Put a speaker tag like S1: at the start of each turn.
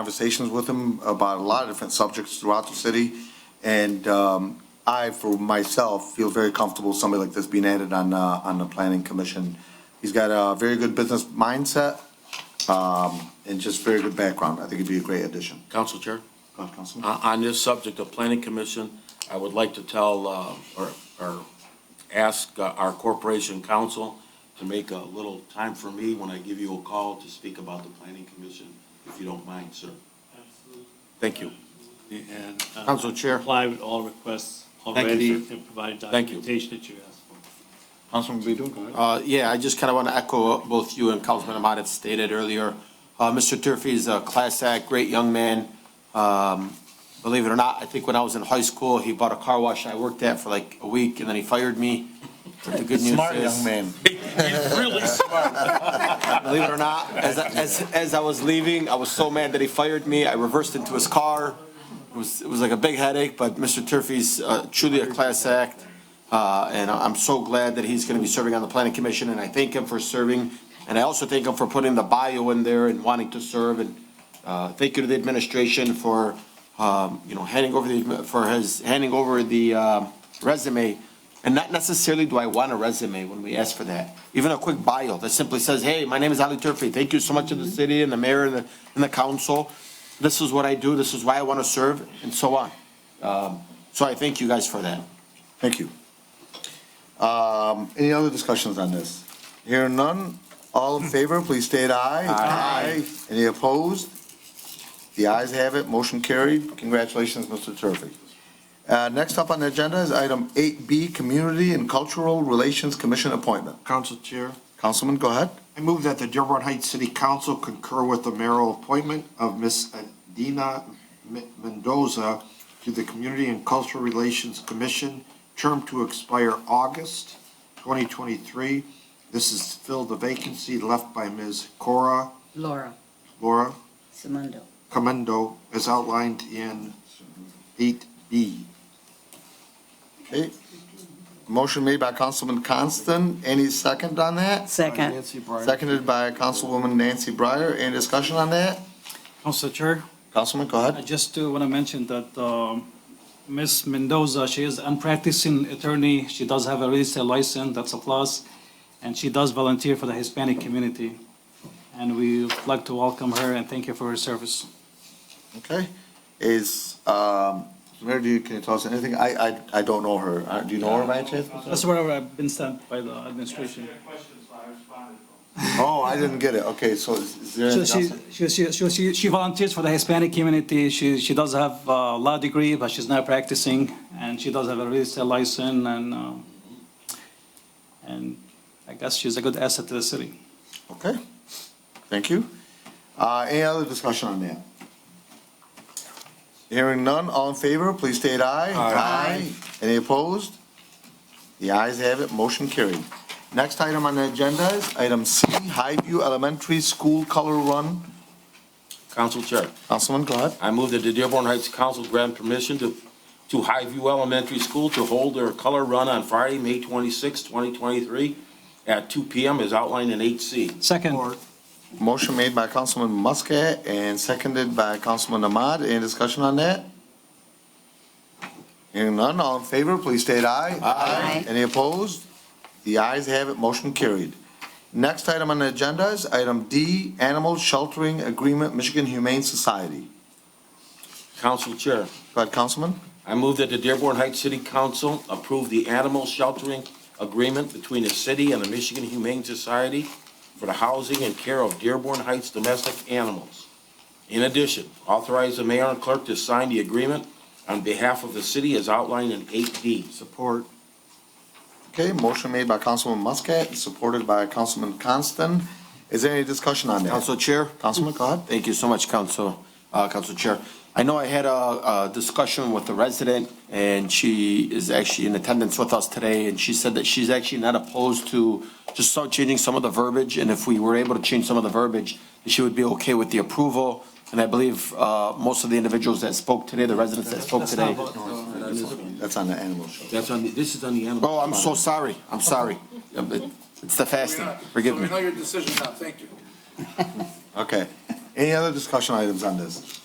S1: conversations with him about a lot of different subjects throughout the city. And um, I, for myself, feel very comfortable with somebody like this being added on, uh, on the planning commission. He's got a very good business mindset um, and just very good background. I think he'd be a great addition.
S2: Council Chair,
S1: Go ahead, Councilman.
S2: on, on this subject of planning commission, I would like to tell, uh, or, or ask uh, our corporation council to make a little time for me when I give you a call to speak about the planning commission, if you don't mind, sir. Thank you.
S3: And uh,
S2: Council Chair.
S3: Comply with all requests
S2: you,
S3: already
S2: sir.
S3: and provide
S2: Thank you.
S3: documentation that you asked for.
S4: Councilman Baydun, go ahead.
S5: Uh, Yeah, I just kind of want to echo what both you and Councilman Ahmad had stated earlier. Uh, Mr. Turfy is a class act, great young man. Um, Believe it or not, I think when I was in high school, he bought a car wash I worked at for like a week, and then he fired me. But the good news
S4: Smart
S5: is-
S4: young man.
S5: Believe it or not, as, I- as, as I was leaving, I was so mad that he fired me. I reversed into his car. It was, it was like a big headache, but Mr. Turfy's uh, truly a class act. Uh, and I- I'm so glad that he's gonna be serving on the planning commission, and I thank him for serving. And I also thank him for putting the bio in there and wanting to serve, and, uh, thank you to the administration for, um, you know, handing over the, for his, handing over the, um, resume. And not necessarily do I want a resume when we ask for that. Even a quick bio that simply says, hey, my name is Ali Turfi. Thank you so much to the city and the mayor and the, and the council. This is what I do. This is why I want to serve and so on. Um, so I thank you guys for that.
S1: Thank you. Um, Any other discussions on this? Hearing none, all in favor, please state aye. Aye. Any opposed? The ayes have it, motion carried. Congratulations, Mr. Turvey. Uh, Next up on the agenda is item 8B, Community and Cultural Relations Commission Appointment.
S6: Council Chair,
S1: Councilman, go ahead.
S6: I move that the Dearborn Heights City Council concur with the mayoral appointment of Ms. Adina M- Mendoza to the Community and Cultural Relations Commission, term to expire August 2023. This is to fill the vacancy left by Ms. Cora
S7: Laura
S6: Laura
S7: Simondo.
S6: Comendo, as outlined in 8B.
S1: Okay. Motion made by Councilman Constant. Any second on that?
S7: Second.
S6: Nancy Bryant.
S1: Seconded by Councilwoman Nancy Breyer. Any discussion on that?
S8: Council Chair,
S1: Councilman, go ahead.
S8: I just want to mention that um, Ms. Mendoza, she is a practicing attorney. She does have a real estate license, that's a plus, and she does volunteer for the Hispanic community. And we'd like to welcome her and thank her for her service.
S1: Okay, is, um, Mayor, do you, can you tell us anything? I, I, I don't know her. Uh, Do you know her by any chance?
S8: That's where I've been sent by the administration.
S1: Oh, I didn't get it. Okay, so is is there
S8: So
S1: anything
S8: she,
S1: else?
S8: she, she- she, she, she volunteers for the Hispanic community. She, she does have a law degree, but she's not practicing, and she does have a real estate license, and, uh, and I guess she's a good asset to the city.
S1: Okay, thank you. Uh, any other discussion on that? Hearing none, all in favor, please state aye. Aye. Any opposed? The ayes have it, motion carried. Next item on the agenda is item C, Highview Elementary School Color Run.
S2: Council Chair.
S1: Councilman, go ahead.
S2: I move that the Dearborn Heights Council grant permission to, to Highview Elementary School to hold their color run on Friday, May 26, 2023, at 2 PM as outlined in 8C.
S8: Second.
S1: Motion made by Councilman Muscat and seconded by Councilman Ahmad. Any discussion on that? Hearing none, all in favor, please state aye.
S7: Aye.
S1: Any opposed? The ayes have it, motion carried. Next item on the agenda is item D, Animal Sheltering Agreement, Michigan Humane Society.
S2: Council Chair,
S1: Go ahead, Councilman.
S2: I move that the Dearborn Heights City Council approve the animal sheltering agreement between the city and the Michigan Humane Society for the housing and care of Dearborn Heights domestic animals. In addition, authorize the mayor and clerk to sign the agreement on behalf of the city as outlined in 8D.
S6: Support.
S1: Okay, motion made by Councilman Muscat, supported by Councilman Constant. Is there any discussion on that?
S5: Council Chair?
S1: Councilman, go ahead.
S5: Thank you so much, Council, uh, Council Chair. I know I had a, a discussion with the resident, and she is actually in attendance with us today, and she said that she's actually not opposed to just start changing some of the verbiage, and if we were able to change some of the verbiage, she would be okay with the approval. And I believe, uh, most of the individuals that spoke today, the residents that spoke today.
S1: That's on the animal shelter.
S2: That's on, the- this is on the animal.
S5: Oh, I'm so sorry, I'm sorry. It's the fasting, forgive me.
S9: So we know your decision now, thank you.
S1: Okay. Any other discussion items on this?